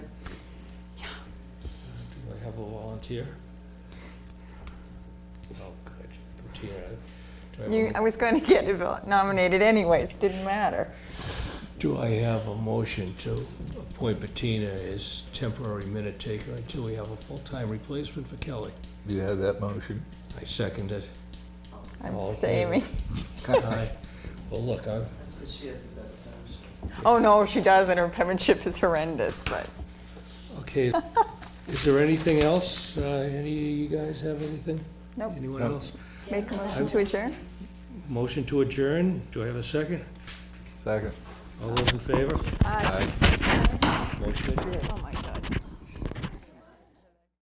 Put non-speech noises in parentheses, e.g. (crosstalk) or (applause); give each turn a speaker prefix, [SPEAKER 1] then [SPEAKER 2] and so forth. [SPEAKER 1] will volunteer? Oh, good, volunteer. Do I have a
[SPEAKER 2] You, I was going to get (laughs) nominated anyways, didn't matter.
[SPEAKER 1] Do I have a motion to appoint Bettina as temporary minute taker until we have a full-time replacement for Kelly?
[SPEAKER 3] You have that motion?
[SPEAKER 1] I second it.
[SPEAKER 2] I'm
[SPEAKER 1] All in
[SPEAKER 2] abstaining.
[SPEAKER 1] Aye. Well, look, I'm,
[SPEAKER 4] That's because she has the best penmanship.
[SPEAKER 2] Oh, no, she doesn't. Her penmanship is horrendous, but
[SPEAKER 1] okay. Is there anything else? Uh, Any, you guys have anything?
[SPEAKER 2] nope.
[SPEAKER 1] Anyone
[SPEAKER 3] No.
[SPEAKER 1] else?
[SPEAKER 2] Make a motion to adjourn?
[SPEAKER 1] Motion to adjourn? Do I have a second?
[SPEAKER 3] Second.
[SPEAKER 1] All those in favor?
[SPEAKER 2] Aye.
[SPEAKER 1] Motion adjourned.
[SPEAKER 2] Oh, my